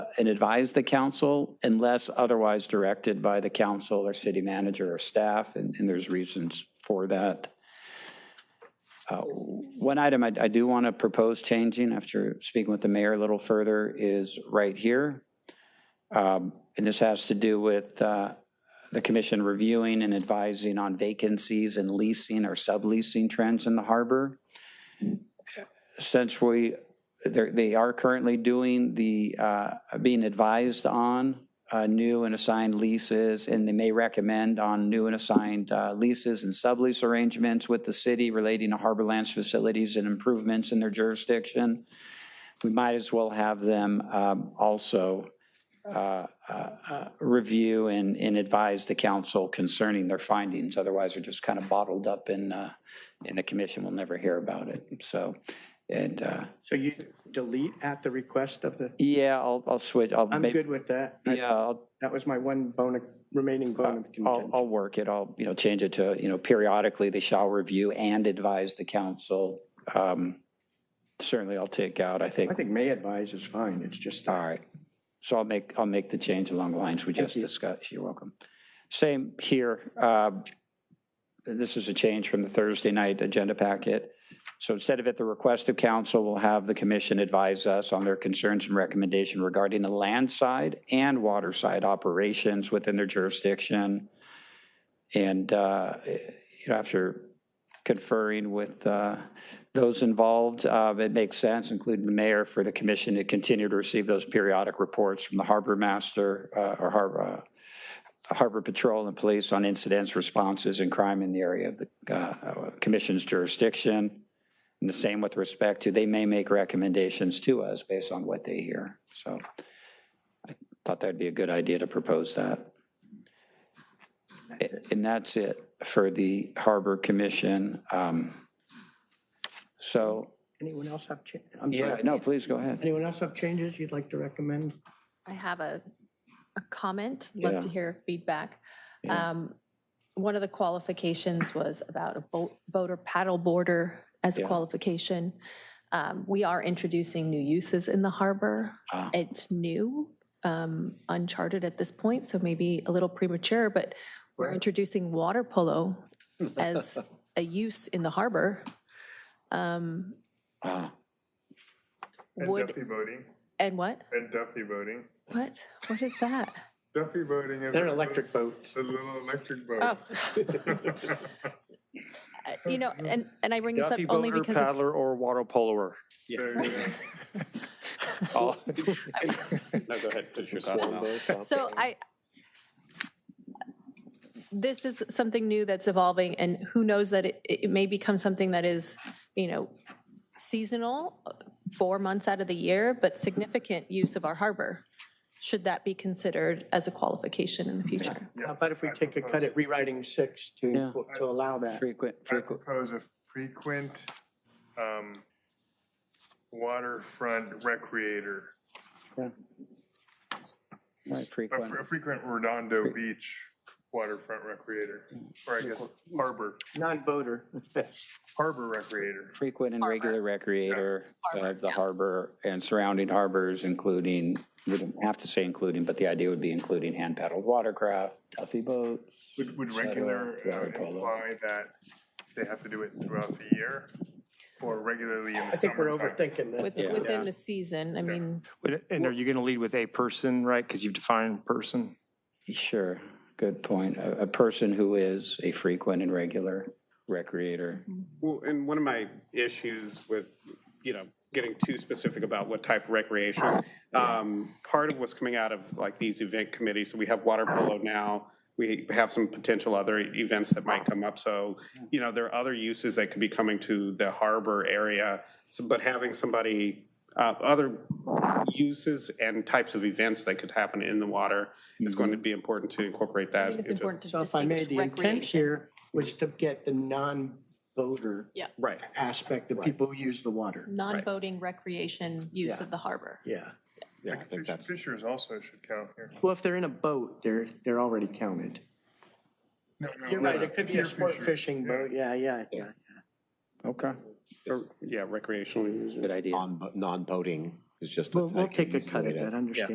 and advise the council unless otherwise directed by the council or city manager or staff, and, and there's reasons for that. Uh, One item I, I do want to propose changing after speaking with the mayor a little further is right here. Um, And this has to do with uh, the commission reviewing and advising on vacancies and leasing or subleasing trends in the harbor. Since we, they're- they are currently doing the, uh, being advised on uh, new and assigned leases, and they may recommend on new and assigned uh, leases and sublease arrangements with the city relating to Harborlands facilities and improvements in their jurisdiction. We might as well have them um, also uh, uh, uh, review and, and advise the council concerning their findings. Otherwise, they're just kind of bottled up in, uh, and the commission will never hear about it. So, and, uh, So you delete at the request of the, yeah, I'll, I'll switch. I'll I'm make- good with uh, that. I- Yeah, I'll, That was my one bone, of- remaining bone of I'll, contention. I'll work it. I'll, you know, change it to, you know, periodically they shall review and advise the council. Um, Certainly I'll take out, I think. I think may advise is fine, it's just, All right. So I'll make, I'll make the change along the lines we just you. discussed. You're welcome. Same here. um, and This is a change from the Thursday night agenda packet. So instead of at the request of council, we'll have the commission advise us on their concerns and recommendation regarding the land side and water side operations within their jurisdiction. And, uh, you know, after conferring with uh, those involved. Uh, It makes sense, including the mayor, for the commission to continue to receive those periodic reports from the harbor master uh, or harbor, uh, harbor patrol and police on incidents, responses, and crime in the area of the uh, commission's jurisdiction. And the same with respect to, they may make recommendations to us based on what they hear. So I thought that'd be a good idea to propose that. And that's it for the Harbor Commission. Um, So, anyone else have, cha- I'm yeah, sorry, no, please go ahead. anyone else have changes you'd like to recommend? I have a, a comment, love to Yeah. hear feedback. Yeah. Um, One of the qualifications was about a boat, boat or paddle boarder as a Yeah. qualification. Um, We are introducing new uses in the harbor. Ah. It's new, um, uncharted at this point, so maybe a little premature, but we're Right. introducing water polo as a use in the harbor. Um, Ah, And Would, Duffy voting, and what? and Duffy voting. What? What is that? Duffy voting is. They're a- electric boats. A little electric Oh. boat. Uh, You know, and, and I bring this up Duffy only boater, because it's- paddler, or water poloer. Oh. There you go. All- No, go ahead, finish your thought. Mel. So I, this is something new that's evolving, and who knows that it, it may become something that is, you know, seasonal, uh, four months out of the year, but significant use of our harbor. Should that be considered as a qualification in the future? How about if we Yes, I take a cut at propose- rewriting six to, Yeah. to allow that? frequent, I frequent, propose a frequent, um, waterfront recreator, right, a frequent. fre- a frequent Redondo Beach waterfront recreator, Mm. or I guess harbor, Non-voter, harbor recreator. frequent and Harbor. regular recreator Harbor, of the yeah. harbor and surrounding harbors, including, we don't have to say including, but the idea would be including hand paddled watercraft, Duffy boats. Would, would et cetera, regular uh, water polo. imply that they have to do it throughout the year? Or regularly in I the think we're summertime? overthinking With, that. Yeah. within the season, I mean, Wait, And are you going to lead with a person, right? Because you've defined person. Sure, good point. A, a person who is a frequent and regular recreator. Well, and one of my issues with, you know, getting too specific about what type of recreation, um, part of what's coming out of like these event committees, so we have water polo now, we have some potential other events that might come up, so, you know, there are other uses that could be coming to the harbor area, so- but having somebody, uh, other uses and types of events that could happen in the water is going to be important to incorporate Mm-hmm. I that. think it's into- important to So if I distinguish made the intent recreation. here was to get the non-voter Right. aspect, the people who use the water. Non-boating recreation use Yeah. of the harbor. Yeah. Yeah, Like fish- Fishers also should count here. Well, if they're in a boat, they're, they're already counted. No, no, You're no, right, no. it could be a Pier sport fishers, fishing yeah. boat, yeah, yeah, yeah. Okay. Or, Yeah, recreational uses. Good idea. non non-boating is just. a- We'll, I we'll think, take a easy cut way at to- that, understand.